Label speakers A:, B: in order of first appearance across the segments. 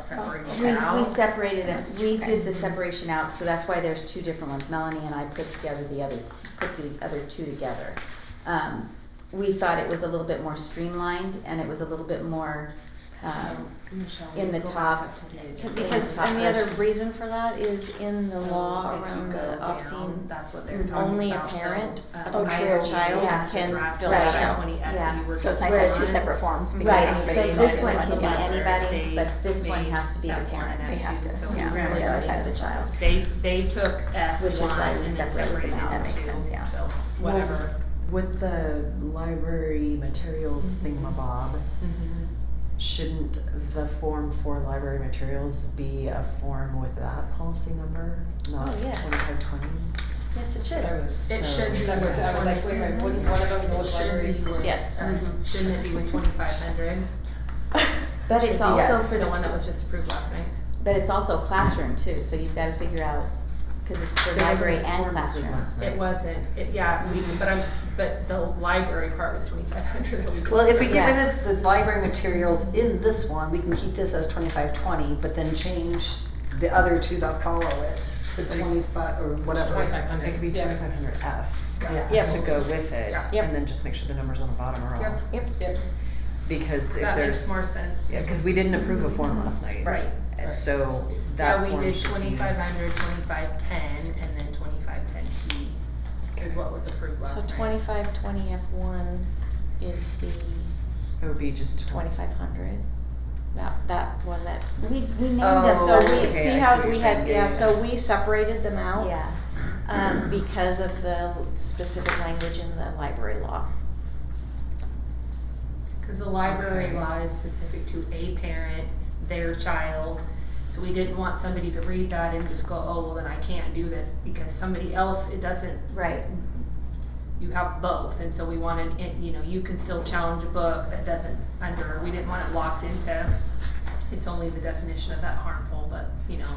A: separating it
B: We, we
A: out?
B: separated it, we
A: Okay.
B: did the separation out, so that's why there's two different ones. Melanie and I put together the other, put the other two together. Um, we thought it was a little bit more streamlined and it was a little bit more, um, in the top.
C: Because, and the other reason for that is in the law around the obscene,
A: That's what they're talking
C: only a
A: about, so,
C: parent
A: uh,
C: of a
A: my
C: true
A: ISG
C: child
A: has the
C: can
A: draft
C: fill
B: that
A: version
B: out.
A: 20 and
B: Yeah.
A: you were
D: So
A: just
D: it's nice to have two
A: online.
D: separate forms because
B: Right,
D: anybody
B: so
D: can
B: this
D: get
B: one
D: one.
B: can be
D: Yeah.
B: anybody,
A: They
B: but this one
A: made
B: has to be the
A: F1
B: parent.
A: and
D: We
A: F2,
D: have to,
A: so
D: yeah,
A: we
B: really
A: really
B: gotta
A: just-
B: set the child.
A: They, they took F
B: Which is
A: one
B: why we
A: and then
B: separated
A: separated
B: them
A: out
B: out.
D: That makes sense, yeah.
A: so whatever.
E: With the library materials thingamabob,
A: Mm-hmm.
E: shouldn't the form for library materials be a form with that policy number, not
C: Oh, yes.
E: twenty-five twenty?
C: yes, it should.
F: I was.
A: It
F: so-
A: should be
F: That's what I was like, wait a minute, wouldn't one of them go with library?
A: Should be with-
C: Yes.
A: or Shouldn't it be with twenty-five hundred?
B: But it's also
D: yes.
B: for
A: The
B: the,
A: one that was just approved last night?
B: but it's also classroom too, so you've gotta figure out, cause it's for library and classroom.
A: It wasn't, it, yeah, we, but I'm, but the library part was twenty-five hundred.
D: Well, if we get
B: Yeah.
D: rid of the library materials in this one, we can keep this as twenty-five twenty, but then change the other two that follow it to twenty-five or whatever.
F: Twenty-five hundred.
E: It could be twenty-five hundred F
D: Yeah.
C: Yep.
E: to go with it,
A: Yeah.
C: Yep.
E: and then just make sure the numbers on the bottom are
A: Yep.
E: all,
F: Yep.
E: because if
A: That makes
E: there's.
A: more sense.
E: Yeah, cause we didn't approve a form last night.
A: Right.
E: And So that
A: Yeah, we
E: form
A: did
E: should be-
A: twenty-five hundred, twenty-five ten, and then twenty-five ten P is what was approved last
C: So
A: night.
C: twenty-five, twenty F one is the
E: It would be just twenty.
C: twenty-five hundred, that, that one that.
B: We, we named them,
C: So
B: so
E: Oh,
C: we,
E: okay, I
C: see
E: see
C: how
E: what
C: we
E: you're
C: had,
E: saying,
C: yeah,
E: yeah,
C: so
E: yeah.
C: we separated them out.
B: yeah,
C: um, because of the specific language in the library law.
A: Cause the library
E: Okay.
A: law is specific to a parent, their child, so we didn't want somebody to read that and just go, oh, well, then I can't do this, because somebody else, it doesn't,
B: right.
A: you have both, and so we wanted, it, you know, you can still challenge a book that doesn't under, we didn't want it locked into, it's only the definition of that harmful, but, you know,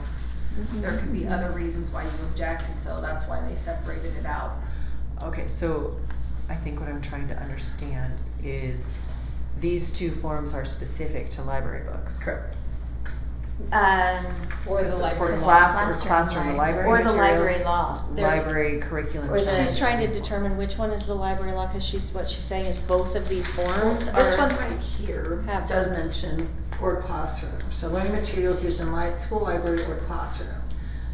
C: Mm-hmm.
A: there could be other reasons why you object, and so that's why they separated it out.
E: Okay, so I think what I'm trying to understand is these two forms are specific to library books.
D: Correct.
B: Um,
F: Or the
D: For
F: library.
D: class-
E: Class or
D: Classroom,
E: classroom, the library
B: or the
E: materials,
B: library law.
F: They're-
E: Library curriculum.
B: or the-
E: change.
C: She's trying to determine which one is the library law, cause she's, what she's saying is both of these forms are.
D: This one right here
C: Have-
D: does mention or classroom, so learning materials used in li- school library or classroom.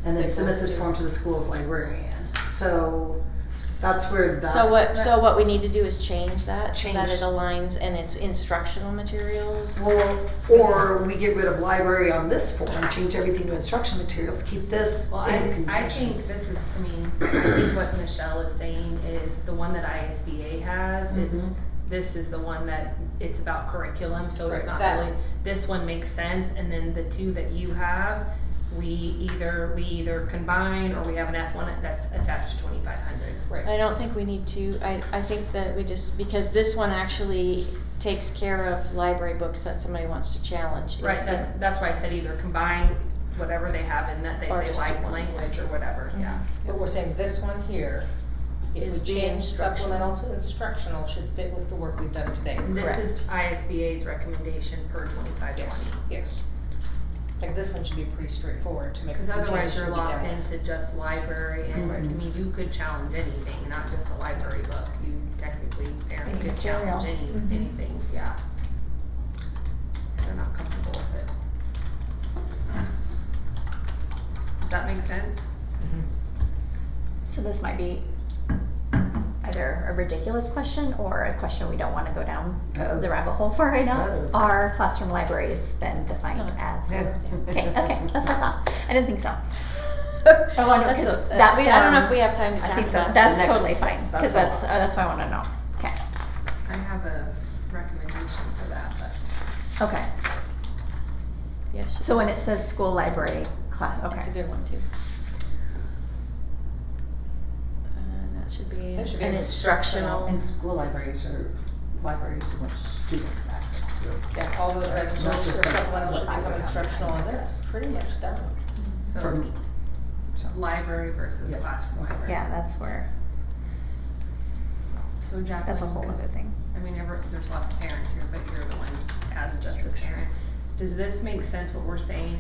D: And
F: They
D: then submit
F: both
D: this
F: do.
D: form to the school's librarian, so that's where that.
C: So what, so what we need to do is change that, so that
D: Change.
C: it aligns and it's instructional materials.
D: Well, or we get rid of library on this form, change everything to instruction materials, keep this
A: Well, I,
D: in
A: I
D: conjunction.
A: think this is, I mean, I think what Michelle is saying is the one that ISBA has, it's,
D: Mhm.
A: this is the one that, it's about curriculum, so
F: Right,
A: it's not
F: that-
A: really, this one makes sense, and then the two that you have, we either, we either combine, or we have an F one that's attached to twenty-five hundred.
C: I don't think we need to, I, I think that we just, because this one actually takes care of library books that somebody wants to challenge. is
A: Right,
C: the-
A: that's, that's why I said either combine whatever they have in that they,
C: Or
A: they
C: just
A: like
C: one.
A: language or whatever, yeah.
F: But we're saying this one here, if
C: Is
F: we
C: the
F: change
C: instruction.
F: supplemental to instructional, should fit with the work we've done today.
A: This
C: Correct.
A: is ISBA's recommendation per twenty-five twenty.
F: Yes, yes. Like this one should be pretty straightforward to make.
A: Because
F: the changes
A: otherwise you're
F: should be
A: locked
F: done Mm-hmm. with.
A: into just library and, I
D: Mhm.
A: mean, you could challenge anything, not just a library book. You technically, parent
D: Any
A: could challenge any,
C: Mhm.
A: anything, yeah. If They're not comfortable with it. Does that make sense?
D: So this might be.
G: either a ridiculous question or a question we don't want to go down
D: Uh-oh.
G: the rabbit hole for right now.
D: Uh-oh.
G: Are classroom libraries then defined as? Okay, okay, that's what I thought. I didn't think so. I wonder
C: That's a-
G: because
C: that
G: that
C: we, I don't know if
G: form-
C: we have time to
D: I
C: tackle
D: think
C: that.
D: that's
G: That's
D: the
G: totally
D: next- that's
G: fine because
D: a
G: that's uh,
D: lot.
G: that's what I want to know. Okay,
A: I have a recommendation for that, but
G: okay.
C: Yes, she
G: So when
C: does.
G: it says school library class,
C: It's a
G: okay.
C: good one too. And Uh, that should be
F: That should be
C: an instructional.
D: And school libraries are libraries in which students have access to.
F: Yeah, all those
D: Right,
F: records
D: not
F: or
D: just a-
F: supplemental should
D: I
F: become
D: would-
F: instructional and that's pretty much done.
D: For
A: so
D: me. So-
A: library versus
D: Yeah.
A: classroom library.
G: Yeah, that's where
A: So Jacqueline.
G: that's a whole other thing.
A: I mean, ever, there's lots of parents here, but you're the one as just a parent. does this make sense what we're saying